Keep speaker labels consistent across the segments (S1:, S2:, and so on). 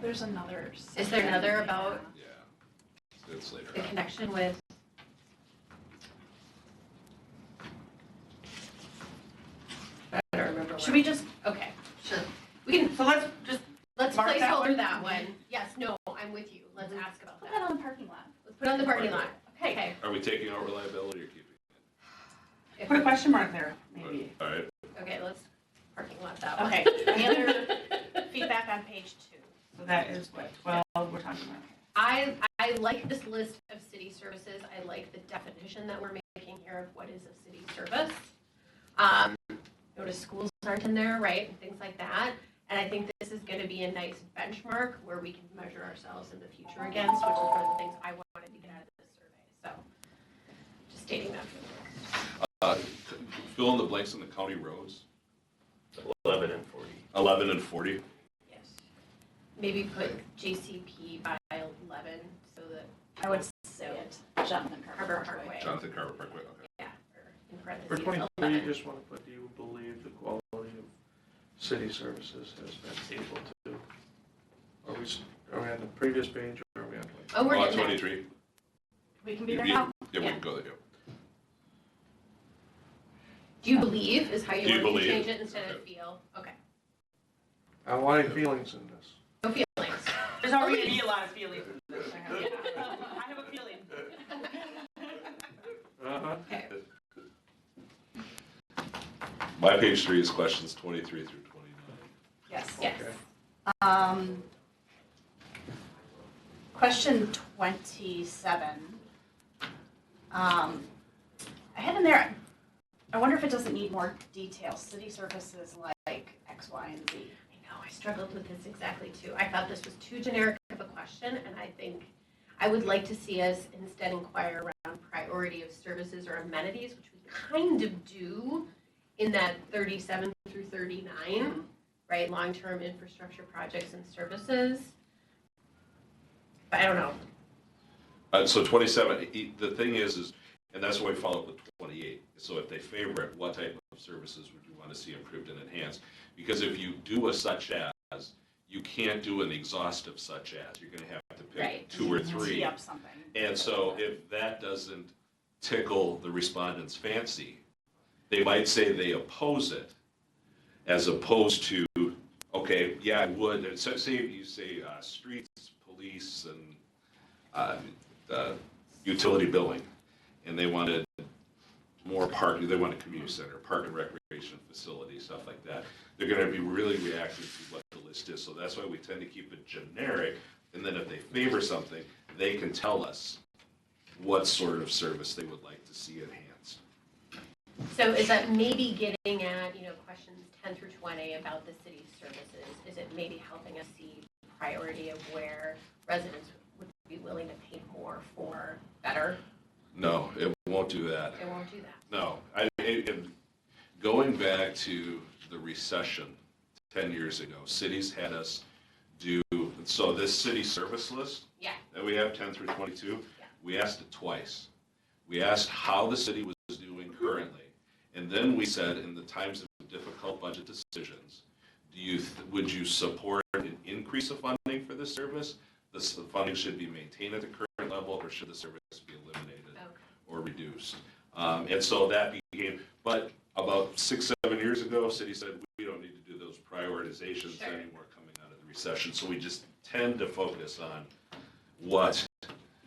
S1: there's another.
S2: Is there another
S1: section.
S2: about
S1: Yeah.
S3: Yeah. It's later
S2: the
S3: on.
S2: connection with? I don't remember
S4: Should
S2: what,
S4: we just,
S2: okay, sure.
S4: we can, so let's just,
S2: Let's
S4: Mark that
S2: placeholder
S4: one. Mm-hmm.
S2: that one. Yes, no, I'm with you. Let's ask about
S1: Put
S2: that.
S1: that on the parking lot.
S2: Let's put it on the parking lot.
S4: hey,
S2: Okay.
S3: Are we taking out reliability or keeping?
S2: If-
S4: put a question mark there, maybe.
S3: All right,
S2: Okay, let's parking lot that one.
S4: Okay, any
S5: Feedback on page two.
S4: So that is what, twelve we're talking about.
S2: I, I like this list of city services. I like the definition that we're making here of what is a city service. Um, notice schools aren't in there, right, and things like that. And I think this is gonna be a nice benchmark where we can measure ourselves in the future against, which is one of the things I wanted to get out of this survey, so. Just stating that for the record.
S3: uh, fill in the blanks on the county roads,
S6: Eleven and forty.
S3: eleven and forty.
S2: Yes. Maybe put JCP by eleven so that.
S1: I would
S2: say it.
S1: Jonathan
S2: Harbor Parkway,
S3: Jonathan Carver Parkway, okay.
S2: yeah, or in
S7: For
S2: parentheses,
S7: twenty-three, you
S2: eleven.
S7: just want to put, do you believe the quality of city services has been able to? Are we, s- are we on the previous page or are we on like?
S2: Oh, we're
S3: Lot
S2: getting there.
S3: Uh, twenty-three.
S1: We can
S3: You- you- Yeah, we can go there.
S2: Do you believe is how
S3: Do
S2: you
S3: you
S2: want to
S3: believe?
S2: change it instead of feel? Okay.
S7: I want any feelings in this.
S2: No feelings.
S4: There's already gonna be a lot of feelings.
S5: I have a feeling.
S7: Uh-huh.
S3: My page three is questions twenty-three through twenty-nine.
S1: Yes.
S2: Yes.
S7: Okay.
S5: Um, question twenty-seven. Um, I had in there, I wonder if it doesn't need more detail, city services like X, Y, and Z.
S2: I know, I struggled with this exactly too. I thought this was too generic of a question, and I think I would like to see us instead inquire around priority of services or amenities, which we kind of do in that 37 through 39, right? Long-term infrastructure projects and services. But I don't know.
S3: Uh, so twenty-seven, e- the thing is, is, and that's why we follow up with twenty-eight. So if they favor it, what type of services would you want to see improved and enhanced? Because if you do a such as, you can't do an exhaustive such as. You're gonna have to
S2: Right.
S3: pick two or three.
S5: Tee up something.
S3: And so if that doesn't tickle the respondent's fancy, they might say they oppose it as opposed to, okay, yeah, I would. And so say you say uh, streets, police, and uh, uh, utility billing, and they wanted more parking, they want a community center, park and recreation facility, stuff like that. They're gonna be really reactive to what the list is, so that's why we tend to keep it generic. And then if they favor something, they can tell us what sort of service they would like to see enhanced.
S2: So is that maybe getting at, you know, questions ten through twenty about the city services? Is it maybe helping us see priority of where residents would be willing to pay more for better?
S3: No, it won't do that.
S2: It won't do that.
S3: No, I, it, it- going back to the recession ten years ago, cities had us do, so this city service list
S2: Yeah,
S3: that we have, ten through twenty-two,
S2: Yeah.
S3: we asked it twice. We asked how the city was doing currently, and then we said, in the times of difficult budget decisions, do you, th- would you support an increase of funding for this service? This, the funding should be maintained at the current level, or should the service be eliminated?
S2: okay.
S3: or reduced. Um, and so that became, but about six, seven years ago, city said, we don't need to do those prioritizations
S2: Sure.
S3: anymore coming out of the recession. So we just tend to focus on what,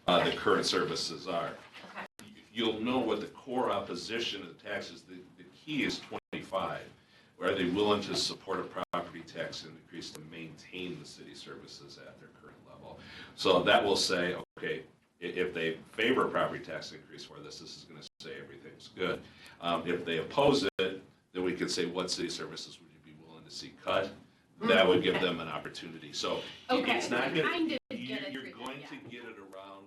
S3: uh, the current services are.
S2: Okay.
S3: You- You'll know what the core opposition of taxes, the, the key is twenty-five. Are they willing to support a property tax increase to maintain the city services at their current level? So that will say, okay, i- if they favor a property tax increase for this, this is gonna say everything's good. Um, if they oppose it, then we could say, what city services would you be willing to see cut? That would give them an opportunity, so it-
S2: Okay,
S3: it's not gonna,
S2: kind of
S3: you-
S2: get it
S3: you're
S2: through that,
S3: going
S2: yeah.
S3: to get it around,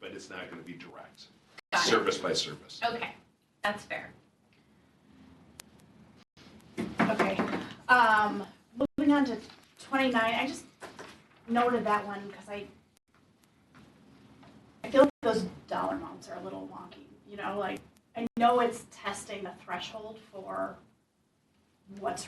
S3: but it's not gonna be direct,
S2: Got it.
S3: service by service.
S2: Okay, that's fair.
S5: Okay, um, moving on to twenty-nine, I just noted that one because I, I feel like those dollar amounts are a little wonky, you know, like, I know it's testing the threshold for what's